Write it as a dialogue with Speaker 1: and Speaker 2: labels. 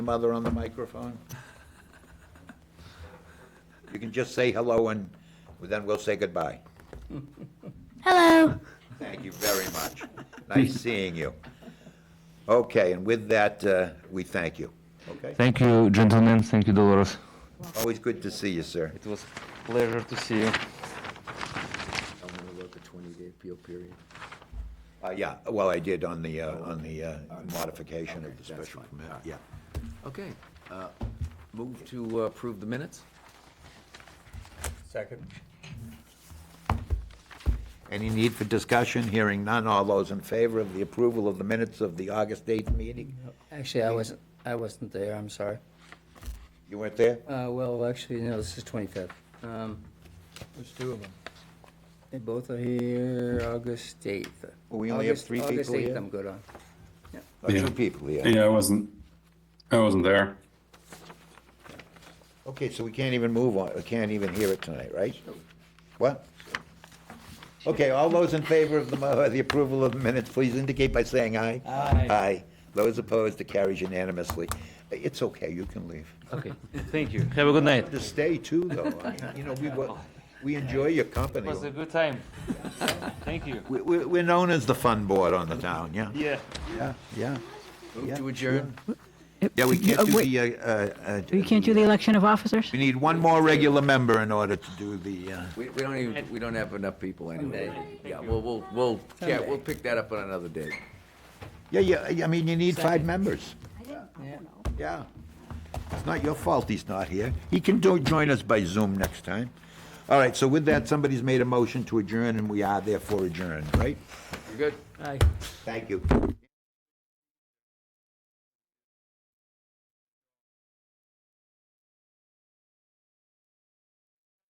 Speaker 1: mother on the microphone? You can just say hello and then we'll say goodbye.
Speaker 2: Hello.
Speaker 1: Thank you very much. Nice seeing you. Okay, and with that, uh, we thank you. Okay?
Speaker 3: Thank you, gentlemen. Thank you, Dolores.
Speaker 1: Always good to see you, sir.
Speaker 3: It was pleasure to see you.
Speaker 4: I'm gonna look at twenty-day appeal period.
Speaker 1: Uh, Yeah, well, I did on the, uh, on the uh, modification of the
Speaker 4: Okay, that's
Speaker 1: special
Speaker 4: fine.
Speaker 1: permit.
Speaker 4: All right.
Speaker 1: Yeah.
Speaker 4: Okay, uh, move to approve the minutes?
Speaker 1: Second. Any need for discussion? Hearing none. All those in favor of the approval of the minutes of the August 8th meeting?
Speaker 5: Actually, I wasn't, I wasn't there, I'm sorry.
Speaker 1: You weren't there?
Speaker 5: Uh, well, actually, no, this is twenty-fifth. Um,
Speaker 6: There's two of them.
Speaker 5: they both are here August eighth.
Speaker 1: Well, we only have three
Speaker 5: August
Speaker 1: people
Speaker 5: eighth,
Speaker 1: here?
Speaker 5: I'm good on.
Speaker 1: Oh, Two
Speaker 7: Yeah.
Speaker 1: people, yeah.
Speaker 7: Yeah, I wasn't. I wasn't there.
Speaker 1: Okay, so we can't even move on, we can't even hear it tonight, right? What? Okay, all those in favor of the, mo- the approval of the minutes, please indicate by saying aye. Aye. Aye. Those opposed, it carries unanimously. It's okay, you can leave.
Speaker 3: Okay, thank you. Have a good night.
Speaker 1: To stay too, though, I mean, you know, we, wa- we enjoy your
Speaker 3: It
Speaker 1: company.
Speaker 3: was a good time. Thank you.
Speaker 1: We, we- we're known as the fun board on the town, yeah?
Speaker 3: Yeah.
Speaker 1: Yeah, yeah.
Speaker 4: Move to adjourn?
Speaker 1: Yeah, we can't do
Speaker 2: wait.
Speaker 1: the, uh, uh.
Speaker 2: We can't do the election of officers?
Speaker 1: We need one more regular member in order to do the, uh.
Speaker 4: We, we don't even, we don't have enough people anyway. Yeah, we'll, we'll, we'll, yeah, we'll pick that up on another day.
Speaker 1: Yeah, yeah, I mean, you need five members.
Speaker 5: Yeah.
Speaker 1: Yeah. It's not your fault he's not here. He can do, join us by Zoom next time. All right, so with that, somebody's made a motion to adjourn, and we are therefore adjourned, right?
Speaker 4: You good?
Speaker 5: Aye.
Speaker 1: Thank you.